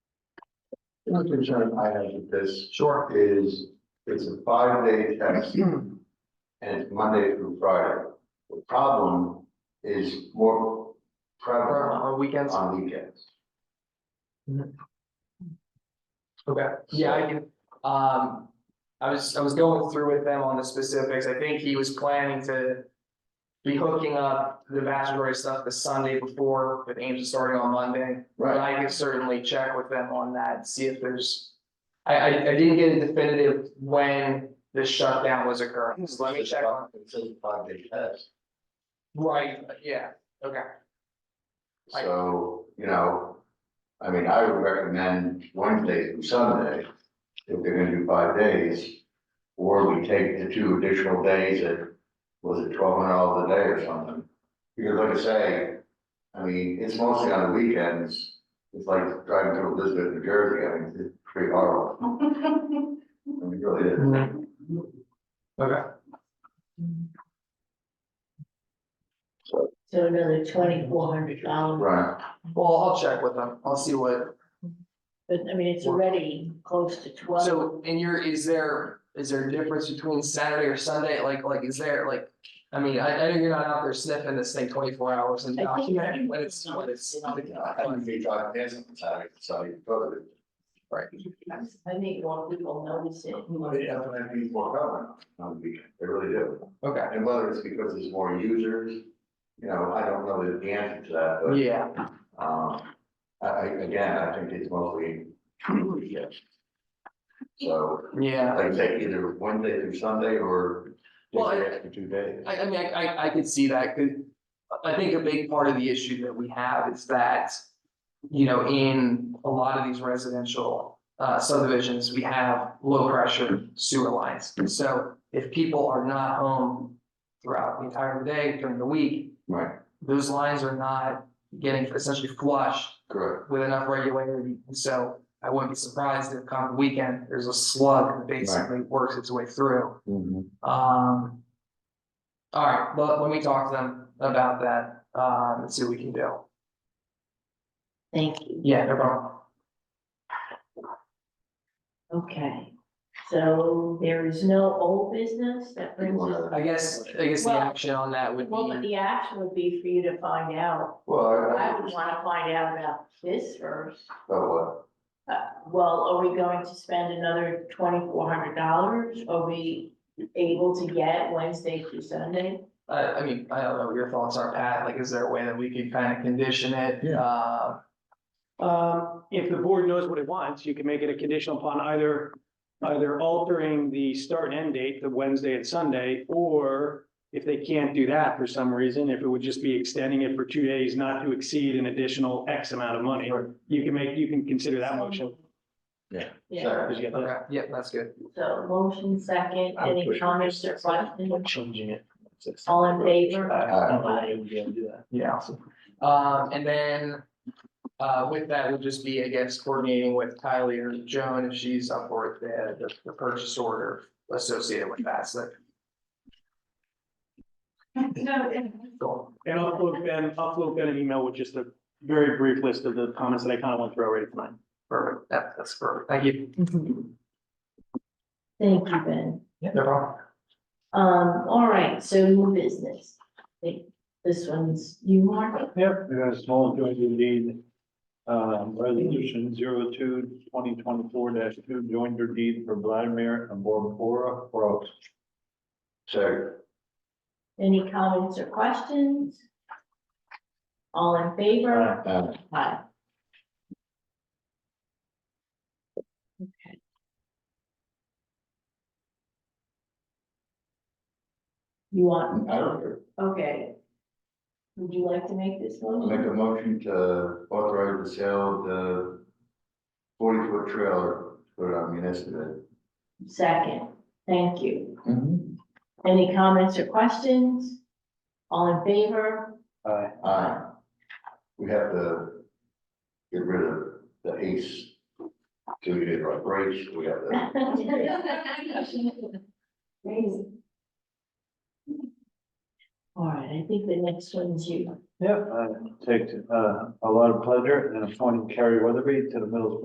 The only concern I have with this Sure. is it's a five day test and it's Monday through Friday. The problem is more prevalent On weekends, on weekends. okay, yeah, I can, um, I was, I was going through with them on the specifics, I think he was planning to. Be hooking up the vast majority of stuff the Sunday before, with Ames starting on Monday. But I can certainly check with them on that, and see if there's. I, I, I didn't get a definitive when the shutdown was occurring, so Hmm, let me check on, It says five day test. right, yeah, okay, Right. So, you know, I mean, I would recommend Wednesday through Sunday, if they're gonna do five days. Or we take the two additional days at, was it twelve hundred dollars a day or something? Because like I say, I mean, it's mostly on the weekends, it's like driving through Elizabeth, New Jersey, I mean, it's pretty horrible. I mean, it really is. Mm. Mm-hmm. okay. So another twenty-four hundred dollars, Right, Well, I'll check with them, I'll see what, but I mean, it's already close to twelve. so in your, is there, is there a difference between Saturday or Sunday, like, like, is there, like? I mean, I, I know you're not out there sniffing this thing twenty-four hours and I think- documenting when it's, when it's. I wouldn't be driving this on Saturday, Sunday, but it- I think a lot of people notice it. They definitely need more government on the weekend, they really do. Okay, And whether it's because there's more users, you know, I don't know the answer to that, yeah, but, um, I, I, again, I think it's mostly. weekends. So, yeah. like I say, either Wednesday through Sunday or Well, I- just the extra two days. I, I mean, I, I, I could see that, 'cause I think a big part of the issue that we have is that, you know, in a lot of these residential uh, subdivisions, we have low-pressure sewer lines. So if people are not home throughout the entire day during the week, Right, those lines are not getting essentially flushed correct. with enough regularity. And so I wouldn't be surprised if come the weekend, there's a slug that basically works its way through. Um. All right, well, let me talk to them about that, um, and see what we can do. Thank you. Yeah, no problem. Okay, so there is no old business that brings us. I guess, I guess the Well- action on that would Well, but be, the action would be for you to find out. Well, I, I would want to find out about this first. so Uh, well, are we going to spend another twenty-four hundred dollars? Are we able to get Wednesday through Sunday? I, I mean, I don't know what your thoughts are, Pat, like, is there a way that we could kind of condition it? Yeah. Uh, Um, if the board knows what it wants, you can make it a conditional upon either, either altering the start and end date, the Wednesday and Sunday, or if they can't do that for some reason, if it would just be extending it for two days, not to exceed an additional X amount of money, you can make, you can consider that motion. what? Yeah, Did you get that? okay, yeah, that's good. so motion second, I would any push it. comments or questions? Changing it. All in favor? I would be able to do that. Yeah. Um, and then, uh, with that would just be, I guess, coordinating with Kylie or Joan if she's up for it, the, the purchase order associated with that, so. Cool. And I'll upload Ben, I'll upload Ben an email with just a very brief list of the comments that I kind of went through already tonight. Perfect, that, that's perfect, thank you. Thank you, Ben. Yeah, no problem. Um, all right, so new business. I think This one's you, Mark? Yep, we got a small joint deed, um, resolution zero two twenty twenty-four dash two, joinder deed for Vladimir and Borbora Brooks. So, Any comments or questions? All in favor? uh, Aye. You want? I don't care. Okay. Would you like to make this I'll Make one? a motion to authorize the sale of the forty foot trailer, put on municipal. Second, thank you. Any comments or questions? All in favor? Aye. Aye. Uh, We have to get rid of the ace. So we did right race, we have the, Amazing. All right, I think the next one's you. Yep, uh, take, uh, a lot of pleasure in appointing Carrie Weatherby to the Middlesbrough